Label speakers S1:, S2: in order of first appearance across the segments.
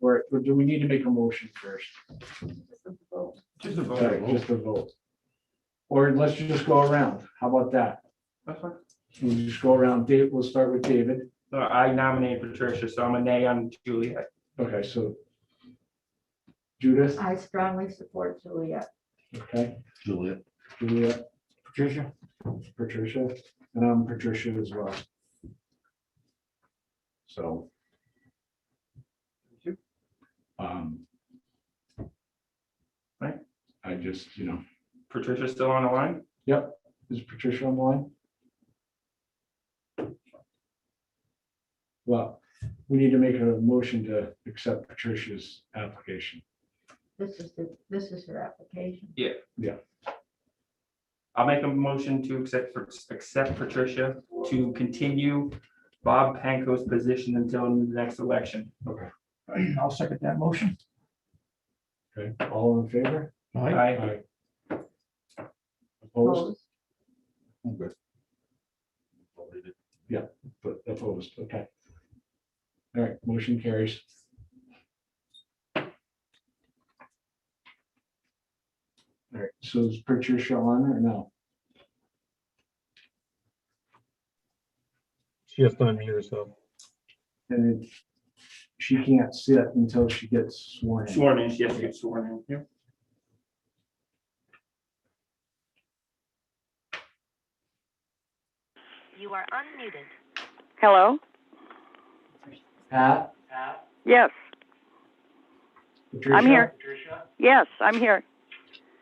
S1: Or or do we need to make a motion first?
S2: Just a
S1: Sorry, Just a vote. Or let's just go around. How about that?
S2: That's fine.
S1: We'll just go around. Dave, we'll start with David.
S2: So I nominate Patricia, so I'm a nay on Juliet.
S1: Okay, so Judith,
S3: I strongly support Julia.
S1: okay,
S4: Juliet.
S1: Julia, Patricia, Patricia, and I'm Patricia as well. So, um, right, I just, you know,
S2: Patricia's still on the line?
S1: Is Patricia online? Well, we need to make a motion to accept Patricia's application.
S3: This is, the this is her application.
S2: I'll make a motion to accept, accept Patricia to continue Bob Panko's position until the next election.
S1: Okay.
S2: I'll second that motion.
S1: Okay, all in favor?
S2: Aye.
S1: Aye. Opposed?
S3: Opposed?
S1: I'm good. Yeah, but opposed, okay. All right, motion carries. All right, so is Patricia on or no?
S5: She has to unmute herself.
S1: And it- she can't sit until she gets sworn in.
S2: Sworn in, she has to get sworn in.
S6: You are unmuted.
S7: Hello?
S1: Pat?
S7: Yes,
S1: Patricia?
S7: here. yes, I'm here.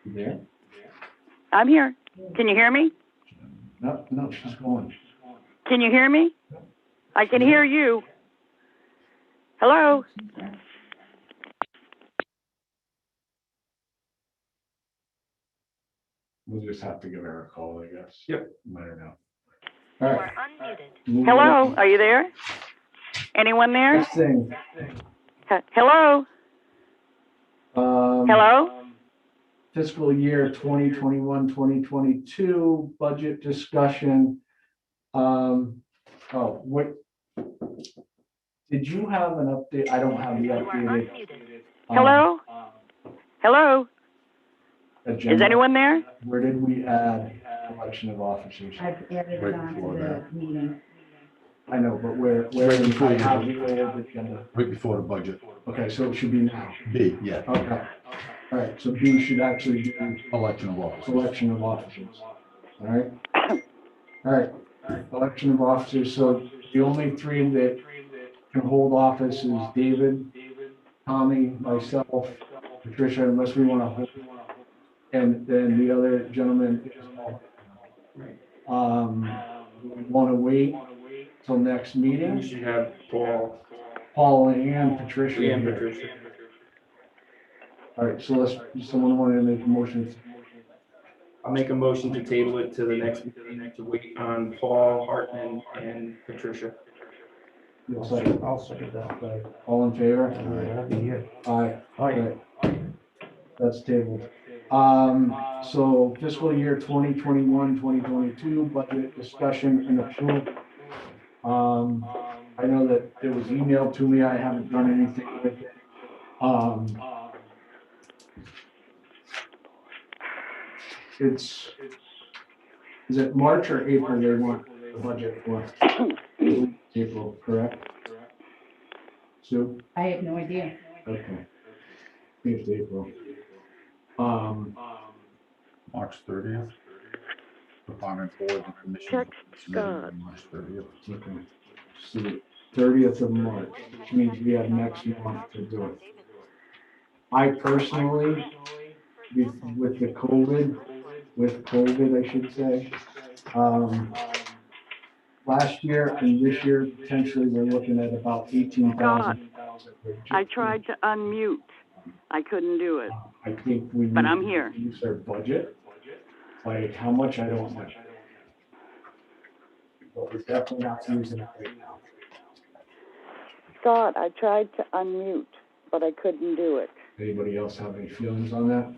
S1: You There?
S7: I'm here. Can you hear me?
S1: No, no, she's going.
S7: Can you hear me? I can hear you. Hello?
S1: We'll just have to give her a call, I guess.
S2: Yep.
S1: Let her know.
S6: You
S1: All right.
S6: are unmuted.
S1: moving
S7: Hello,
S1: on.
S7: are you there? Anyone there?
S1: Next thing,
S7: H- Hello?
S1: um,
S7: Hello?
S1: fiscal year 2021, 2022 budget discussion. Um, oh, what? Did you have an update? I don't have the
S6: You are
S1: updated.
S6: unmuted.
S1: um,
S7: Hello? Hello? Is
S1: agenda.
S7: anyone there?
S1: Where did we add election of officers?
S3: I've added
S4: Right
S3: on
S4: before
S3: to
S4: that.
S3: the meeting.
S1: I know, but where, where,
S4: Right before
S1: I
S4: you.
S1: have the old agenda.
S4: Right before the budget.
S1: Okay, so it should be now.
S4: B, yeah,
S1: Okay. All right, so B should actually be
S4: election of officers.
S1: election of officers. All right? All right, election of officers. So the only three that can hold office is David, Tommy, myself, Patricia, unless we want to hold. And then the other gentleman is Paul. Um, we want to wait till next
S2: We
S1: meeting.
S2: should have Paul
S1: Paul and Patricia.
S2: and
S1: here.
S2: Patricia.
S1: All right, so let's, someone want to make a motion?
S2: I'll make a motion to table it to the next, meeting to wait on Paul Hartman and Patricia.
S1: I'll second that. All in favor? Aye. Aye. That's tabled. Um, so fiscal year 2021, 2022 budget discussion and approval. Um, I know that it was emailed to me. I haven't done anything with it. Um, it's, is it March or April they want the budget for? April, correct? Sue?
S3: I have no idea.
S1: Okay. It's April. Um,
S4: March thirtieth. Department board and commission.
S7: Text God.
S4: March 30th.
S1: okay. So the thirtieth of March, which means we have next month to do it. I personally, with with the COVID, with COVID, I should say, um, last year and this year, potentially, we're looking at about eighteen thousand.
S7: I tried to unmute. I couldn't do it.
S1: I think we.
S7: But
S1: need
S7: I'm
S1: to
S7: here.
S1: Use their budget, like how much, I don't know. But we're definitely not using it right now.
S7: Scott, I tried to unmute, but I couldn't do it.
S1: Anybody else have any feelings on that?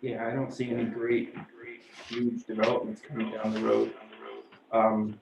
S2: Yeah, I don't see any great, huge developments coming down the road. Um,